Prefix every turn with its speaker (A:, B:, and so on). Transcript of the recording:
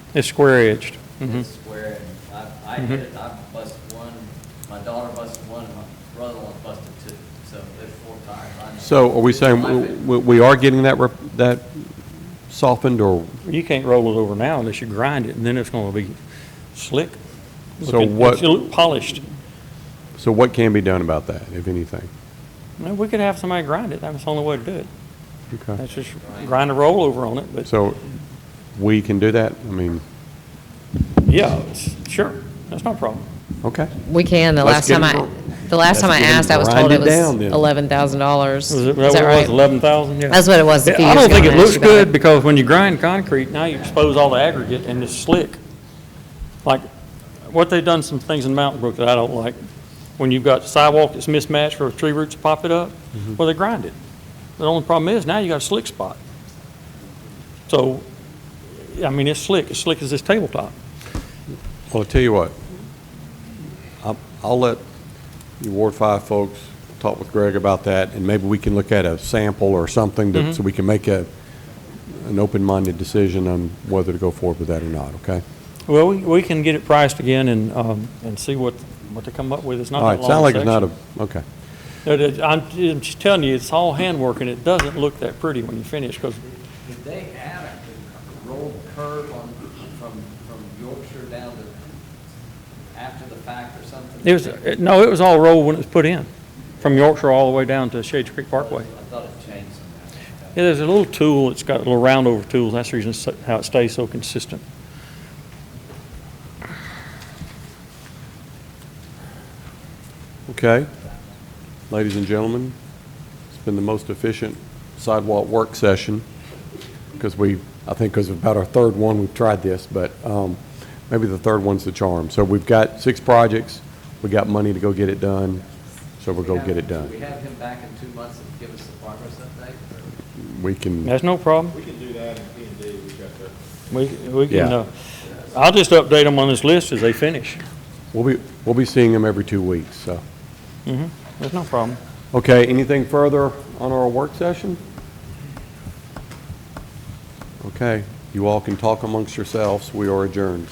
A: It's square edged. Mhm.
B: Mm-hmm.
C: It's square, and I, I hit it, I busted one, my daughter busted one, and my brother-in-law busted two, so there's four tires. I know.
B: So are we
C: It's
B: saying
C: my
B: w-
C: fault.
B: w- we are getting that, rep- that softened or,
A: You can't roll it over now unless you grind it, and then it's going to be slick.
B: So
A: Looking-
B: what-
A: It'll look polished.
B: so what can be done about that, if anything?
A: No, we could have somebody grind it. That's the only way to do it.
B: Okay.
A: That's just grind a roll over on it, but
B: So we can do that? I mean,
A: yeah, it's- sure, that's no problem.
B: okay.
D: We can, the
B: Let's
D: last
B: get
D: time
B: it
D: I,
B: going.
D: the last time I
B: Let's get it
D: asked, I was told
B: grinded
D: it was
B: down then.
D: eleven thousand dollars.
A: Was
D: Is
A: it, that
D: that
A: was
D: right?
A: eleven thousand, yeah.
D: That's what it was a
A: Yeah,
D: few
A: I
D: years
A: don't
D: ago.
A: think it
D: when I
A: looks
D: asked you about
A: good, because when you grind concrete, now you expose all the aggregate and it's slick. Like, what they done some things in Mountain Brook that I don't like, when you've got sidewalk that's mismatched where tree roots pop it up, well, they grind it. The only problem is, now you got a slick spot. So, I mean, it's slick, as slick as this tabletop.
B: Well, I'll tell you what, I'll- I'll let you Ward 5 folks talk with Greg about that, and maybe we can look at a sample or something,
D: Mm-hmm.
B: to- so we can make a, an open-minded decision on whether to go forward with that or not, okay?
A: Well, we, we can get it priced again and, um, and see what, what they come up with. It's not
B: All right,
A: that long
B: sound like it's not
A: section.
B: a, okay.
A: No, that- I'm, I'm just telling you, it's all handwork, and it doesn't look that pretty when you finish, because
C: Did they add a rolled curb on, from, from Yorkshire down to, after the fact or something?
A: it was, it- no, it was all rolled when it was put in, from Yorkshire all the way down to Shades Creek
C: I
A: Parkway.
C: thought it changed somehow.
A: Yeah, there's a little tool, it's got a little round over tool, that's the reason it's so- how it stays so consistent.
B: Okay. Ladies and gentlemen, it's been the most efficient sidewalk work session because we, I think because about our third one, we've tried this, but um, maybe the third one's the charm. So we've got six projects, we got money to go get it done, so we'll go get it
C: Should we
B: done.
C: have him back in two months and give us the progress update? or-
B: We can,
A: That's no problem.
E: We can do that in P and D, we've got the.
A: We, we can,
B: Yeah.
A: uh, I'll just update them on this list as they finish.
B: we'll be, we'll be seeing them every two weeks, so.
A: There's no problem.
B: Okay, anything further on our work session? Okay, you all can talk amongst yourselves. We are adjourned.